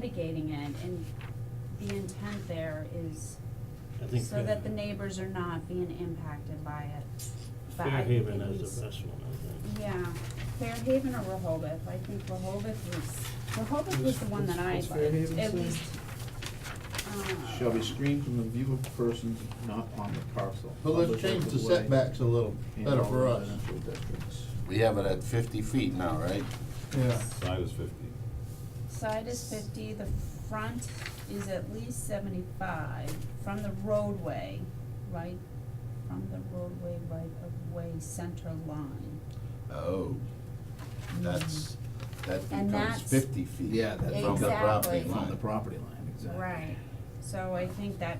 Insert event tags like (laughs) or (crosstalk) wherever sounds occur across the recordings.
mitigating it, and the intent there is I think so that the Fair- neighbors are not being impacted by it. But I think Fairhaven it is needs- the best one, I think. Yeah, Fairhaven or Rehoboth, I think Rehoboth was, Rehoboth was the one that I What's- liked, what's Fairhaven at say? least. uh, shall be screened from the view of persons not on the parcel. But let's change the setbacks a little better for us. We have it at fifty feet now, right? Yeah. Side is fifty. Side is fifty, the front is at least seventy-five from the roadway, right, from the roadway right of way center line. Oh, that's, that And becomes that's- fifty feet. Yeah, that's From the property Exactly. From the line. property line, exactly. Right, so I think that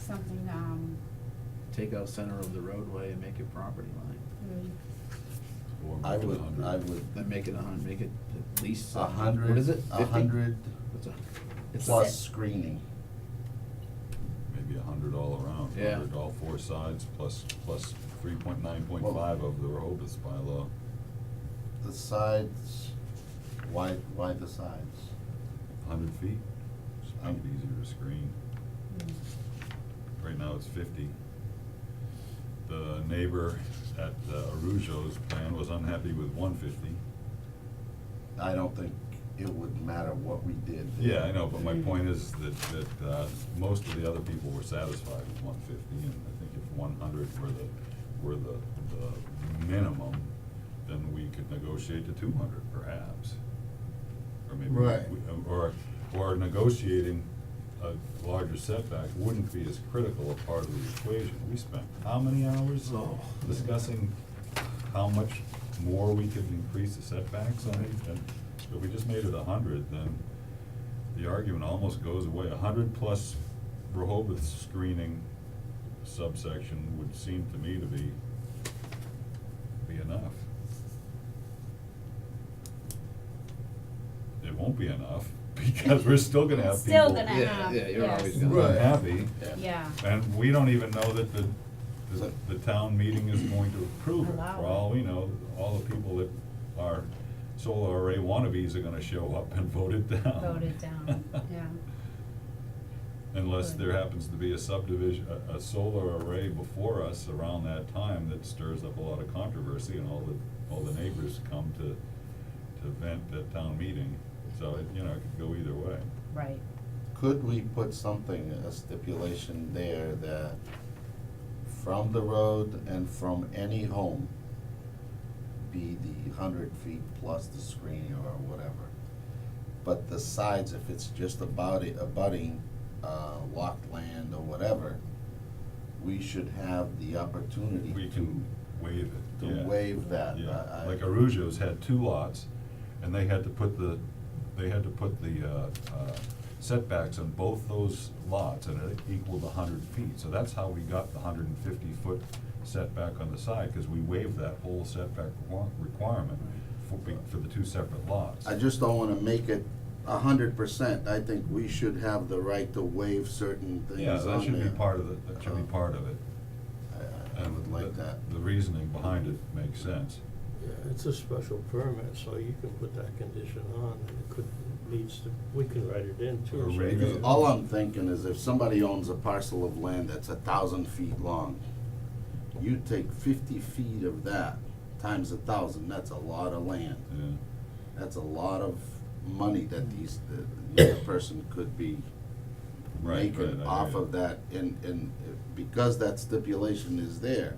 something, um, Take out center of the roadway and make it property line, mm, Or I make it would, 100. I would, then make it a hun, make it at least. a hundred. What is it? A 50? hundred What's a? It's a- plus screening. Maybe a hundred all around, Yeah. hundred all four sides, plus, plus three point nine point five of the Rehoboth bylaw. The sides, why, why the sides? A hundred feet, should make it easier to screen. mm. Right now it's fifty. The neighbor at uh, Arujo's plan was unhappy with one fifty. I don't think it would matter what we did. Yeah, I know, but my point is that, that, uh, most of the other people were satisfied with one fifty, and I think if one hundred were the, were the, the minimum, then we could negotiate to two hundred perhaps. Or maybe, Right. we- or, or negotiating a larger setback wouldn't be as critical a part of the equation. We spent how many hours Oh. discussing how much more we could increase the setbacks on it, and if we just made it a hundred, then the argument almost goes away. A hundred plus Rehoboth screening subsection would seem to me to be, be enough. It won't be enough, (laughs) because we're still gonna have people Still gonna Yeah, have, yeah, yes. you're always gonna- Right. unhappy, Yeah, and we don't even know that the, the, the town meeting is going to approve it. Allow For it. all we know, all the people that are solar array wannabes are gonna show up and vote it down. voted (laughs) down, yeah, Unless there happens to be a subdivision, a, a solar array before us around that time that stirs up a lot of controversy and all the, all the neighbors come to, to vent at town meeting. So, it you know, it could go either way. right. Could we put something, a stipulation there that from the road and from any home be the hundred feet plus the screening or whatever? But the sides, if it's just about it, abutting, uh, locked land or whatever, we should have the opportunity We to, can waive it, to yeah. waive that. Yeah, I- I- like Arujo's had two lots, and they had to put the, they had to put the uh, uh, setbacks on both those lots, and it equaled a hundred feet. So that's how we got the hundred and fifty foot setback on the side, because we waived that whole setback requir- requirement for, be- for the two separate lots. I just don't wanna make it a hundred percent, I think we should have the right to waive certain things Yeah, that on should be there. part of the, that should be Uh-huh. part of it. I, I- I would and like the- that. The reasoning behind it makes sense. Yeah, it's a special permit, so you can put that condition on, and it could, needs to, we can write it in too. Or so rate Because Yeah. all I'm thinking is if somebody owns a parcel of land that's a thousand feet long, you take fifty feet of that times a thousand, that's a lot of land. Yeah. That's a lot of money that these, the, the person could be Right, making right, I off agree. of that. And, and because that stipulation is there,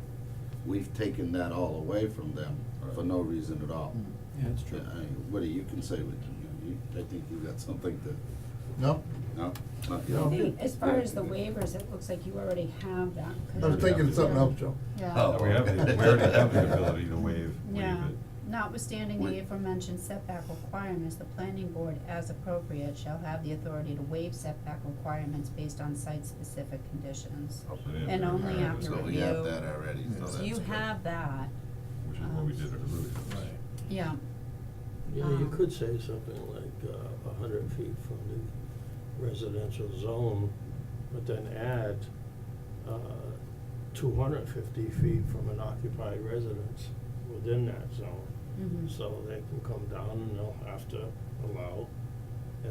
we've taken that all away from them for Right. no reason at all. Yeah, that's true. I, Woody, you can say what you, you, I think you got something to, No, no, not No. yet. They- good. As far as the waivers, it looks like you already have that. 'cause I was thinking of something else, Joe. Yeah, Oh. We have, the- we already have the ability to waive, waive Yeah. it. notwithstanding Wait. the aforementioned setback requirements, the planning board, as appropriate, shall have the authority to waive setback requirements based on site-specific conditions. And only Yeah, after so So review. we have that already, so that's So you good. have that, Which is what we did at Arujo's. yeah, Yeah, you Um, could say something like uh, a hundred feet from the residential zone, but then add uh, two hundred and fifty feet from an occupied residence within that zone. mhm. So they can come down and they'll have to allow